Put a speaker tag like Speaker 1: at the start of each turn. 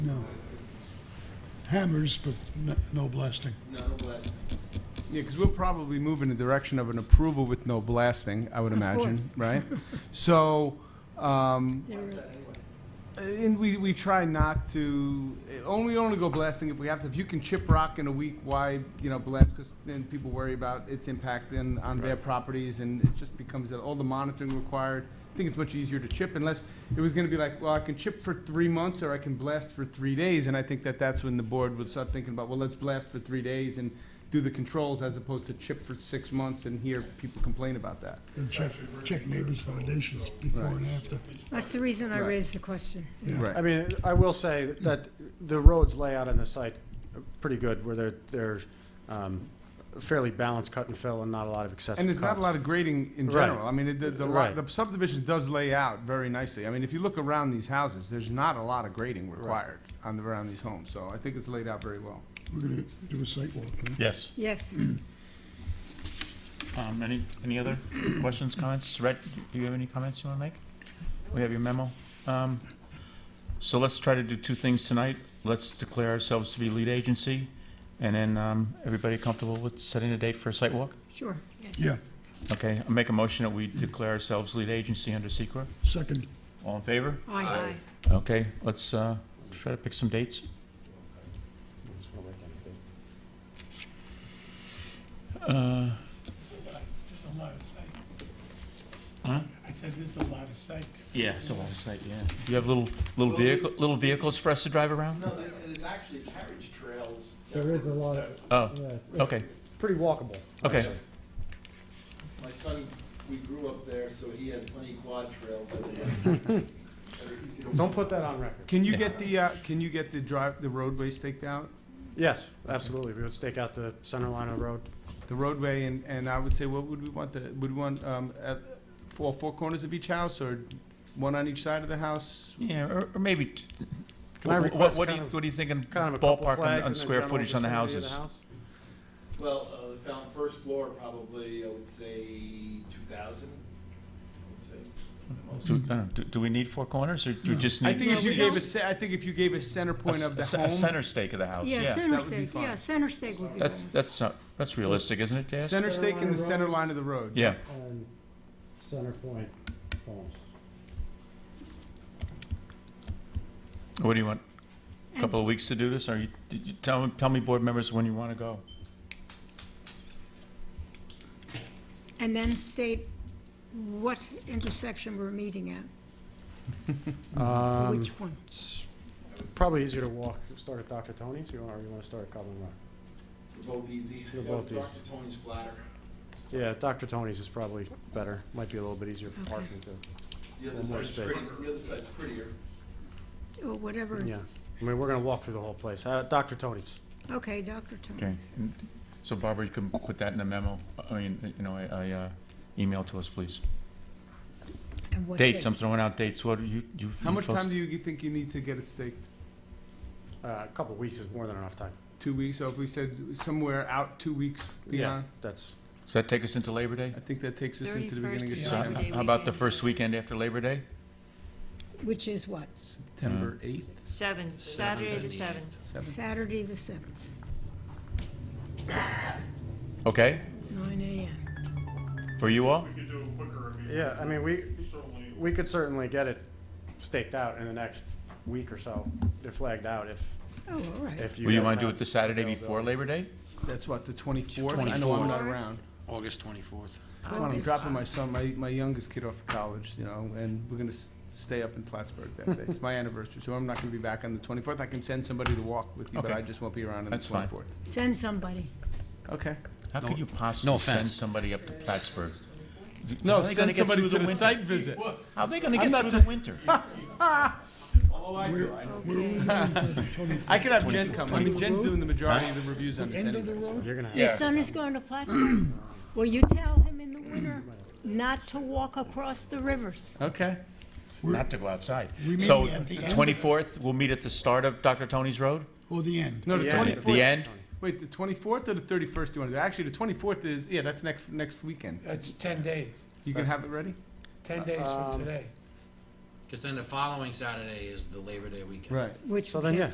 Speaker 1: hammers, but n- no blasting.
Speaker 2: No blasting. Yeah, because we'll probably move in the direction of an approval with no blasting, I would imagine, right? So, um, and we, we try not to, only, only go blasting if we have to. If you can chip rock in a week, why, you know, blast? Because then people worry about its impact on, on their properties, and it just becomes that all the monitoring required. I think it's much easier to chip unless it was gonna be like, well, I can chip for three months or I can blast for three days. And I think that that's when the board would start thinking about, well, let's blast for three days and do the controls as opposed to chip for six months and hear people complain about that.
Speaker 1: And check, check neighbors' foundations before and after.
Speaker 3: That's the reason I
Speaker 2: Right.
Speaker 3: raised the question.
Speaker 2: Right.
Speaker 4: I mean, I will say that the roads layout on the site are pretty good, where they're, they're um, fairly balanced cut and fill and not a lot of excessive cuts.
Speaker 2: And there's not a lot of grading in
Speaker 4: Right.
Speaker 2: general. I mean, it- the, the, lot-
Speaker 4: Right.
Speaker 2: the subdivision does lay out very nicely. I mean, if you look around these houses, there's not a lot of grading required on the, around these homes, so I think it's laid out very well.
Speaker 1: We're gonna do a site walk, huh?
Speaker 5: Yes.
Speaker 3: Yes,
Speaker 5: Um, any, any other questions, comments? Rhett, do you have any comments you want to make? We have your memo. Um, so let's try to do two things tonight. Let's declare ourselves to be lead agency, and then, um, everybody comfortable with setting a date for a site walk?
Speaker 3: sure.
Speaker 1: Yeah,
Speaker 5: Okay, I'll make a motion that we declare ourselves lead agency under SECR.
Speaker 1: second.
Speaker 5: All in favor?
Speaker 3: Aye.
Speaker 5: Okay, let's, uh, try to pick some dates. Uh,
Speaker 6: There's a lot of sight.
Speaker 5: Huh?
Speaker 6: I said, there's a lot of sight.
Speaker 5: yeah, it's a lot of sight, yeah. Do you have little, little vehicle, little vehicles for us to drive around?
Speaker 7: No, there- there's actually carriage trails. that
Speaker 8: There is a
Speaker 7: were-
Speaker 8: lot
Speaker 7: that
Speaker 8: of,
Speaker 5: Oh,
Speaker 8: yeah, it's- it's
Speaker 5: okay,
Speaker 8: pretty walkable.
Speaker 5: okay.
Speaker 7: My son, we grew up there, so he had plenty of quad trails. everywhere. That are easy to
Speaker 4: Don't put that on record.
Speaker 2: Can you get the, uh, can you get the drive, the roadway staked out?
Speaker 4: Yes, absolutely. We would stake out the center line of the road.
Speaker 2: The roadway, and, and I would say, what would we want the, would we want, um, at, four, four corners of each house, or one on each side of the house?
Speaker 5: Yeah, or, or maybe, t-
Speaker 4: Can I
Speaker 5: wh- wh-
Speaker 4: request
Speaker 5: what do
Speaker 4: kind
Speaker 5: you,
Speaker 4: of-
Speaker 5: what do you think in
Speaker 4: Kind of a couple
Speaker 5: ballpark on,
Speaker 4: flags
Speaker 5: on
Speaker 4: in the
Speaker 5: square
Speaker 4: general
Speaker 5: footage on the
Speaker 4: vicinity of
Speaker 5: houses?
Speaker 4: house?
Speaker 7: Well, uh, the found first floor probably, I would say two thousand, I would say.
Speaker 5: Do, I don't know, do- do we need four corners, or do we just need?
Speaker 2: I think if you
Speaker 5: a-
Speaker 2: gave a, ce- I think if you gave a center
Speaker 5: a
Speaker 2: point
Speaker 5: c-
Speaker 2: of the
Speaker 5: a c- A
Speaker 2: home,
Speaker 5: center stake of the house,
Speaker 3: Yeah,
Speaker 5: Oh, yeah.
Speaker 3: center
Speaker 2: That would be
Speaker 3: stake, yeah,
Speaker 2: fine.
Speaker 3: center stake would be
Speaker 5: That's,
Speaker 3: fine.
Speaker 5: that's, not- that's realistic, isn't it, Daz?
Speaker 2: center stake in the center line of the road.
Speaker 5: Yeah,
Speaker 8: And center point homes.
Speaker 5: what do you want, a
Speaker 3: And-
Speaker 5: couple of weeks to do this, or you, did you, tell, me- tell me, board members, when you want to go?
Speaker 3: And then state what intersection we're meeting at,
Speaker 4: Um,
Speaker 3: which one.
Speaker 4: it's Probably easier to walk, start at Dr. Tony's, or you want to start at Cumberland Rock?
Speaker 7: They're both easy.
Speaker 4: They're
Speaker 7: Yeah,
Speaker 4: both easy.
Speaker 7: Dr. Tony's flatter.
Speaker 4: Yeah, Dr. Tony's is probably better. Might be a little bit easier for
Speaker 3: Okay.
Speaker 4: parking too.
Speaker 7: The other
Speaker 4: One more
Speaker 7: side's
Speaker 4: space.
Speaker 7: pretty- The other side's prettier.
Speaker 3: Or Oh, whatever.
Speaker 4: Yeah, I mean, we're gonna walk through the whole place. Uh, Dr. Tony's.
Speaker 3: Okay, Dr.
Speaker 5: Okay,
Speaker 3: Tony.
Speaker 5: and- so Barbara, you can put that in a memo, I mean, you know, I, I, uh, email to us, please.
Speaker 3: And what
Speaker 5: Dates, um,
Speaker 3: date?
Speaker 5: I'm throwing out dates, what do you, you you folks?
Speaker 2: How much time do you you think you need to get it staked?
Speaker 4: Uh, a couple weeks is more than enough time.
Speaker 2: Two weeks, so if we said somewhere out two weeks beyond,
Speaker 4: That's,
Speaker 5: Does that take us into Labor Day?
Speaker 2: I think that takes us into the
Speaker 9: 31st
Speaker 2: beginning of
Speaker 9: is
Speaker 5: So,
Speaker 9: Labor
Speaker 2: September.
Speaker 9: Day
Speaker 5: How about the
Speaker 9: weekend.
Speaker 5: first weekend after Labor Day?
Speaker 3: Which is what?
Speaker 2: September eighth,
Speaker 9: Seven, Saturday the seventh.
Speaker 2: seventh.
Speaker 3: Saturday, the 7th,
Speaker 5: Okay,
Speaker 3: nine AM.
Speaker 5: for you all?
Speaker 4: yeah, I mean, we, we could certainly get it staked out in the next week or so. They're flagged out if,
Speaker 3: Oh, all right.
Speaker 4: if you.
Speaker 5: Will you
Speaker 4: guys
Speaker 5: want to do
Speaker 4: have
Speaker 5: it the Saturday before
Speaker 4: availability.
Speaker 5: Labor Day?
Speaker 2: That's what, the twenty-fourth? I know I'm not
Speaker 9: 24th.
Speaker 2: around.
Speaker 6: August 24th.
Speaker 3: Oh,
Speaker 2: Come on, I'm dropping my son, my, my youngest kid off of college, you know, and we're gonna s- stay up in Plattsburgh that day. It's my anniversary, so I'm not gonna be back on the twenty-fourth. I can send somebody to walk with you, but
Speaker 5: Okay.
Speaker 2: I just won't be around on the
Speaker 5: That's fine.
Speaker 2: twenty-fourth.
Speaker 3: Send somebody.
Speaker 2: Okay.
Speaker 5: How could you
Speaker 6: no
Speaker 5: possibly send
Speaker 6: offense.
Speaker 5: somebody up to Plattsburgh?
Speaker 2: No,
Speaker 5: How are they gonna
Speaker 2: send
Speaker 5: get
Speaker 2: somebody
Speaker 5: through
Speaker 2: to
Speaker 5: the
Speaker 2: the
Speaker 5: winter?
Speaker 2: site visit.
Speaker 5: How are they gonna
Speaker 2: I'm
Speaker 5: get
Speaker 2: not
Speaker 5: through the winter?
Speaker 1: Where, where are we going for the 20th?
Speaker 2: I could have Jen come. I mean, Jen's doing the majority of the reviews on this
Speaker 1: End of the
Speaker 2: anyway.
Speaker 1: road?
Speaker 4: You're gonna have.
Speaker 3: Your son is going to Plattsburgh. Will you tell him in the winter not to walk across the rivers?
Speaker 2: Okay.
Speaker 5: Not to go outside.
Speaker 1: We meet
Speaker 5: So,
Speaker 1: at the end of-
Speaker 5: twenty-fourth, we'll meet at the start of Dr. Tony's Road?
Speaker 1: Or Oh, the end?
Speaker 2: No, the
Speaker 4: Yeah.
Speaker 2: twenty-fourth.
Speaker 5: The end?
Speaker 2: Wait, the twenty-fourth or the thirty-first you wanna do? Actually, the twenty-fourth is, yeah, that's next, next weekend.
Speaker 6: That's 10 days,
Speaker 2: You can
Speaker 4: That's-
Speaker 2: have it ready?
Speaker 6: 10 days
Speaker 4: Um,
Speaker 6: from today.
Speaker 10: Because then the following Saturday is the Labor Day weekend.
Speaker 2: Right.
Speaker 3: Which
Speaker 4: So
Speaker 3: we
Speaker 4: then,
Speaker 3: can't
Speaker 4: yeah,